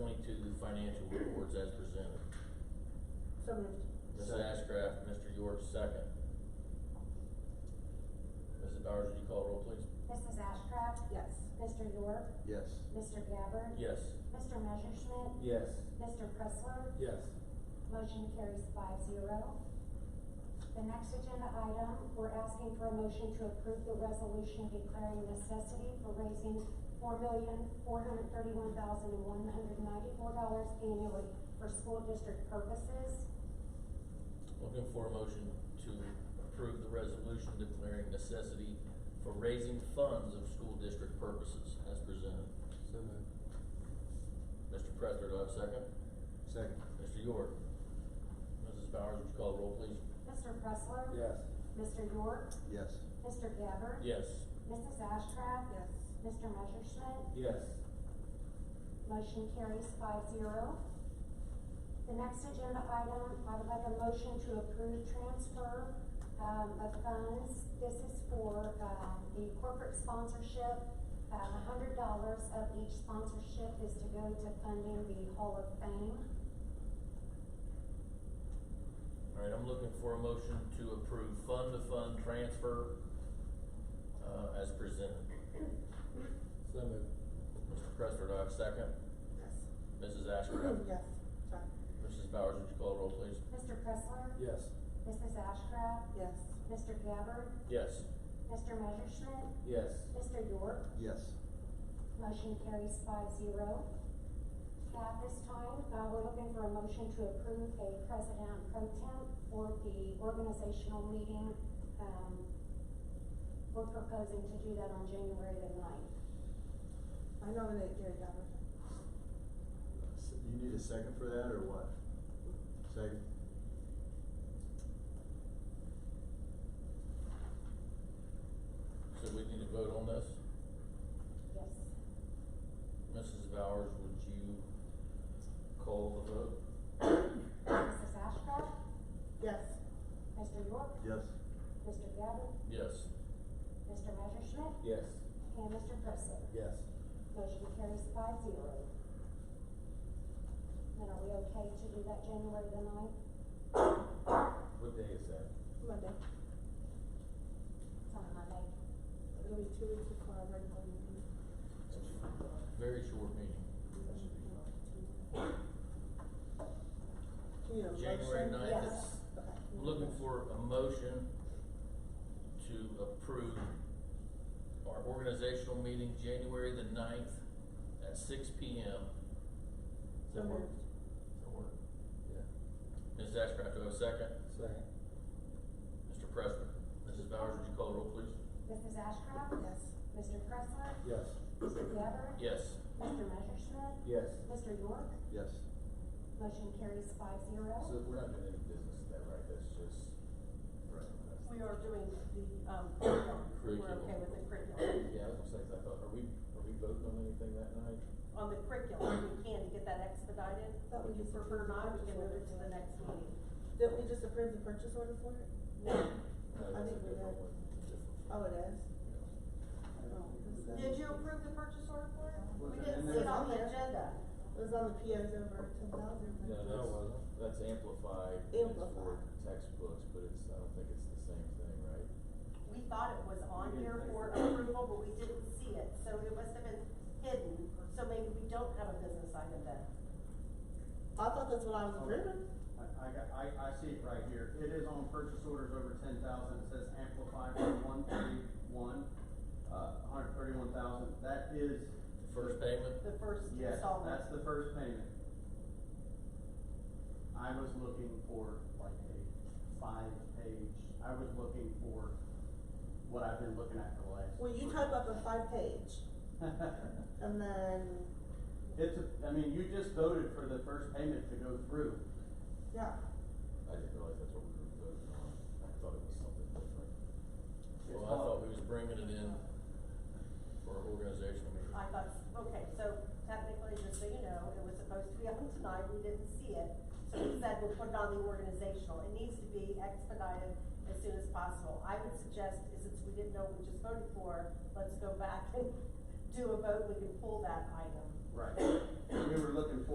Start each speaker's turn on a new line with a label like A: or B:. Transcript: A: financial reports as presented.
B: So moved.
A: Mrs.
C: Second.
A: Ashcraft, Mr. York, second. Mrs. Bowers, would you call roll, please?
D: Mrs. Ashcraft?
B: Yes.
D: Mr. York?
C: Yes.
D: Mr. Gabbard?
A: Yes.
D: Mr. Messerschmidt?
C: Yes.
D: Mr. Pressler?
C: Yes.
D: Motion carries five zero. The next agenda item, we're asking for a motion to approve the resolution declaring necessity for raising four million, four hundred thirty-one thousand, one hundred ninety-four dollars annually for school district purposes.
A: Looking for a motion to approve the resolution declaring necessity for raising funds of school district purposes as presented.
C: So moved.
A: Mr. Pressler, do I have a second?
C: Second.
A: Mr. York? Mrs. Bowers, would you call roll, please?
D: Mr. Pressler?
C: Yes.
D: Mr. York?
C: Yes.
D: Mr. Gabbard?
A: Yes.
D: Mrs. Ashcraft?
B: Yes.
D: Mr. Messerschmidt?
C: Yes.
D: Motion carries five zero. The next agenda item, I would like a motion to approve transfer, um, of funds. This is for, um, the corporate sponsorship. Um, a hundred dollars of each sponsorship is to go to funding the Hall of Fame.
A: All right, I'm looking for a motion to approve fund-to-fund transfer, uh, as presented.
C: So moved.
A: Mr. Pressler, do I have a second?
B: Yes.
A: Mrs. Ashcraft?
B: Yes, sorry.
A: Mrs. Bowers, would you call roll, please?
D: Mr. Pressler?
C: Yes.
D: Mrs. Ashcraft?
B: Yes.
D: Mr. Gabbard?
A: Yes.
D: Mr. Messerschmidt?
C: Yes.
D: Mr. York?
C: Yes.
D: Motion carries five zero. At this time, uh, we're looking for a motion to approve a president pro temp for the organizational meeting. Um, we're proposing to do that on January the ninth.
B: I nominate Gary Gabbard.
E: S- You need a second for that, or what? Second?
A: So we need to vote on this?
D: Yes.
A: Mrs. Bowers, would you call the vote?
D: Mrs. Ashcraft?
B: Yes.
D: Mr. York?
E: Yes?
D: Mr. Gabbard?
A: Yes.
D: Mr. Messerschmidt?
C: Yes.
D: And Mr. Pressler?
C: Yes.
D: Motion carries five zero. And are we okay to do that January the ninth?
C: What day is that?
B: Monday.
D: It's on Monday.
B: It'll be two weeks before our regular meeting.
A: Very short meeting.
C: That should be fine.
B: Do you have a motion?
A: January ninth
D: is-
B: Yes. Okay.
A: I'm looking for a motion to approve our organizational meeting January the ninth at six P M. Does
B: So
A: that work?
B: moved.
A: Does that work?
C: Yeah.
A: Mrs. Ashcraft, do I have a second?
C: Second.
A: Mr. Pressler? Mrs. Bowers, would you call the roll, please?
D: Mrs. Ashcraft?
B: Yes.
D: Mr. Pressler?
C: Yes.
D: Mr. Gabbard?
A: Yes.
D: Mr. Messerschmidt?
C: Yes.
D: Mr. York?
E: Yes.
D: Motion carries five
C: So
D: zero.
C: we're not doing any business then, right? That's just. Right.
F: We are doing the, um, we're okay
A: Curriculum.
F: with the curriculum.
C: Yeah, I was gonna say, 'cause I thought, are we, are we voting on anything that night?
F: On the curriculum, we can to get that expedited.
B: That
F: If
B: would
F: you
B: just-
F: prefer not, we can move it to the next meeting.
B: Didn't we just approve the purchase order for it?
C: No,
B: I
C: that's a
B: think we did.
C: different one. Different.
B: Oh, it is?
C: Yeah.
B: Oh, this is-
F: Did you approve the purchase order for it?
E: Was
F: We
E: it
F: didn't
E: in
F: see
E: there?
F: it on the agenda.
B: It was on the POs over ten thousand.
C: No, that's, that's amplified, it's for
B: Amplified.
C: textbooks, but it's, I don't think it's the same thing, right?
F: We thought it was on here for approval, but we didn't see it, so it must have been hidden. So maybe we don't have a business item then.
B: I thought that's what I
A: Oh.
B: was approving.
G: I, I got, I, I see it right here, it is on purchase orders over ten thousand, it says amplify for one thirty-one, uh, hundred thirty-one thousand, that is.
A: The First payment?
F: The first
G: Yes,
F: installment.
G: that's the first payment. I was looking for like a five-page, I was looking for what I've been looking at for the last.
B: Well, you type up a five page and then,
G: It's, a- I mean, you just voted for the first payment to go through,
B: yeah.
C: I didn't realize that's what we were voting on, I thought it was something different.
A: Well, I thought we was bringing it in for our organizational meeting.
F: I thought, okay, so technically, just so you know, it was supposed to be on tonight, we didn't see it. So we said we'll put it on the organizational, it needs to be expedited as soon as possible. I would suggest, since we didn't know what we just voted for, let's go back and do a vote, we can pull that item.
G: right, we were looking for